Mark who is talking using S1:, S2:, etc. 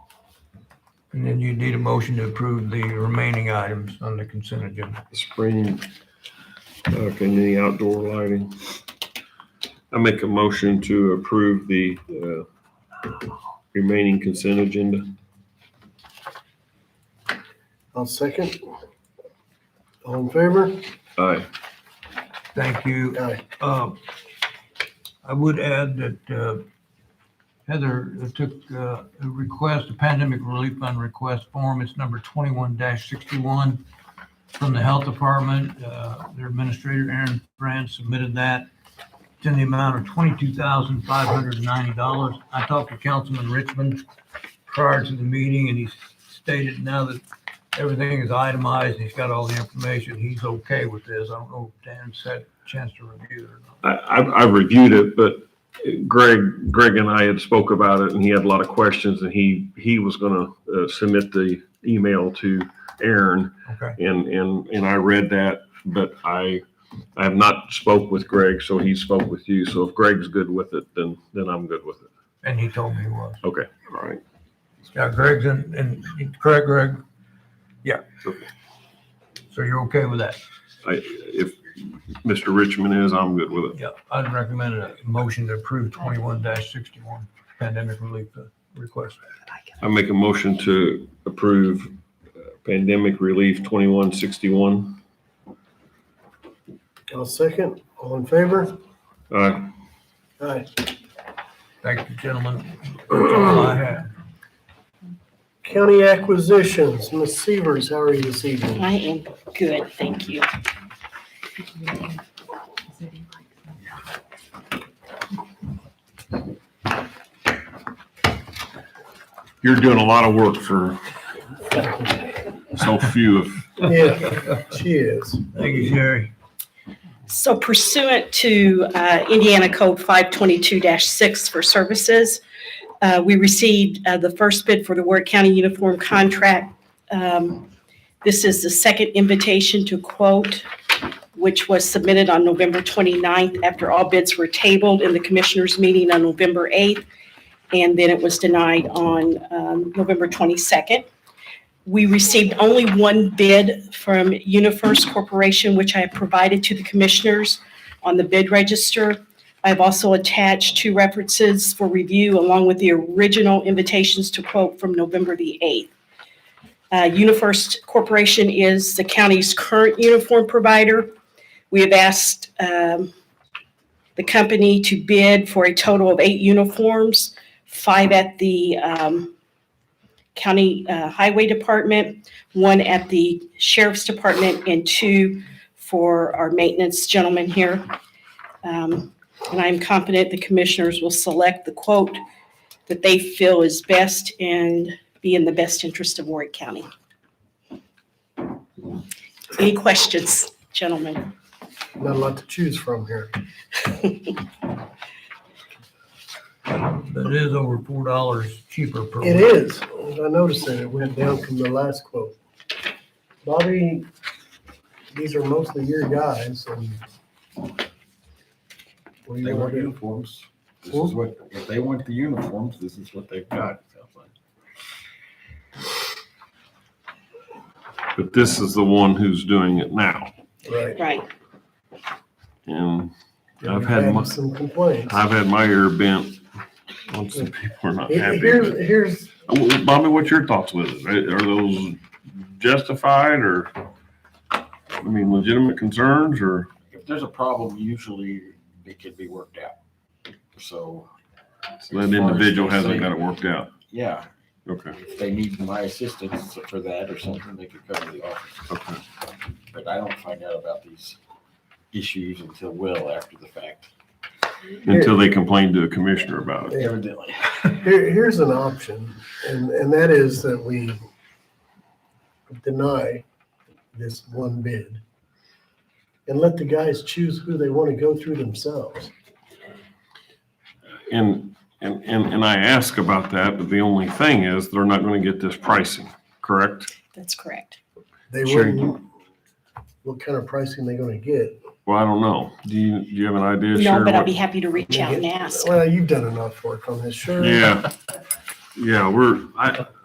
S1: And then you need a motion to approve the remaining items on the consent agenda.
S2: Spring, uh, community outdoor lighting. I make a motion to approve the, uh, remaining consent agenda.
S3: I'll second. All in favor?
S2: Aye.
S1: Thank you.
S3: Aye.
S1: Uh, I would add that uh, Heather took uh, a request, a pandemic relief fund request form. It's number 21-61 from the Health Department. Uh, Their administrator, Aaron Brand, submitted that. It's in the amount of $22,590. I talked to Councilman Richmond prior to the meeting, and he stated now that everything is itemized, and he's got all the information, he's okay with this. I don't know if Dan's had a chance to review it or not.
S2: I, I've, I've reviewed it, but Greg, Greg and I had spoke about it and he had a lot of questions and he, he was gonna, uh, submit the email to Aaron
S1: Okay.
S2: and, and, and I read that, but I, I have not spoke with Greg, so he spoke with you. So if Greg's good with it, then, then I'm good with it.
S1: And he told me he was.
S2: Okay. All right.
S1: Yeah, Greg's in, in, correct, Greg? Yeah.
S2: Okay.
S1: So you're okay with that?
S2: I, if Mr. Richmond is, I'm good with it.
S1: Yeah, I'd recommend a motion to approve twenty-one sixty-one pandemic relief uh, request.
S2: I make a motion to approve uh, pandemic relief twenty-one sixty-one.
S3: I'll second. All in favor?
S2: Uh,
S3: Aye.
S1: Thank you, gentlemen. That's all I have.
S3: County acquisitions, Ms. Severs, how are you this evening?
S4: I am good, thank you.
S2: you're doing a lot of work for so few of.
S3: Yeah, she is.
S1: Thank you, Sherry.
S4: So pursuant to uh, Indiana Code 522-6 for services, uh, we received uh, the first bid for the Ward County Uniform Contract. Um, This is the second invitation to quote, which was submitted on November 29th after all bids were tabled in the Commissioners' meeting on November 8th, and then it was denied on um, November 22nd. We received only one bid from UniFirst Corporation, which I have provided to the commissioners on the bid register. I've also attached two references for review along with the original invitations to quote from November the 8th. Uh, UniFirst Corporation is the county's current uniform provider. We have asked um, the company to bid for a total of eight uniforms, five at the um, County uh, Highway Department, one at the Sheriff's Department, and two for our maintenance gentleman here. Um, And I'm confident the commissioners will select the quote that they feel is best and be in the best interest of Warwick County. Any questions, gentlemen?
S3: Not a lot to choose from here.
S1: But it is over four dollars cheaper per.
S3: It
S1: week.
S3: is. I noticed that it went down from the last quote. Bobby, these are mostly your guys and. What do
S5: They
S3: you want
S5: want
S3: to do?
S5: uniforms. This is what, if they want the uniforms, this is what they've got. it sounds like.
S2: But this is the one who's doing it now.
S3: Right.
S4: Right.
S2: And I've
S3: We've
S2: had my,
S3: Some complaints.
S2: I've had my ear bent on some people are not happy.
S3: Here's, here's
S2: Well, Bobby, what's your thoughts with it? Are are those justified or, I mean, legitimate concerns or?
S5: If there's a problem, usually it could be worked out. So.
S2: That individual hasn't got it worked out.
S5: Yeah,
S2: Okay,
S5: if they need my assistance for that or something, they could come to the office.
S2: okay.
S5: But I don't find out about these issues until well after the fact,
S2: Until they complain to a commissioner about it.
S5: evidently.
S3: Here, here's an option, and, and that is that we deny this one bid and let the guys choose who they want to go through themselves.
S2: And, and, and, and I ask about that, but the only thing is they're not gonna get this pricing, correct?
S4: That's correct.
S3: They
S2: Sure.
S3: wouldn't, what kind of pricing they gonna get?
S2: Well, I don't know. Do you, do you have an idea?
S4: No,
S2: Sharon,
S4: but I'll
S2: what-
S4: be happy to reach out and ask.
S3: Well, you've done enough work on this, sure.
S2: Yeah, yeah, we're, I,